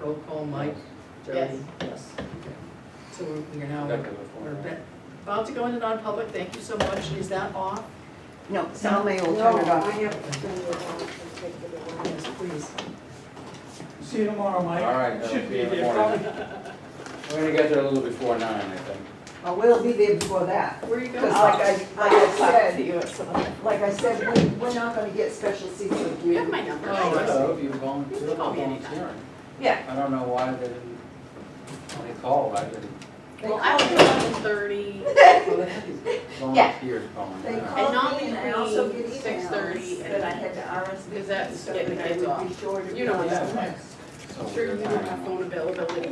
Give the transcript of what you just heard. Roll call, Mike? Yes. Jody? Yes. So we're- we're now, Back in the we're form. be- about to go into non-public, thank you so much, is that off? No, Salome will turn it No, I off. have to turn it off and take it away. Yes, please. See you tomorrow, All Mike. right, that'll Should be be in the there morning. probably. We're gonna get there a little before nine, I think. Well, we'll be there before that. Where are you Because going? like I, like I said, you at some point. like I said, we, we're not gonna get special seats with You have you. my number. Oh, I see. Hello, you volunteer, You can call me anytime. volunteering. Yeah, I don't know why they didn't, when they called, I didn't. well, I was eleven thirty, Volunteers calling. yeah. They And not called me and I also get between 6:30 emails that I had to because RSVP, that's so getting that kids I would off. be sure to. You know come. what that's like. So I'm sure you weird don't timing. have phone availability.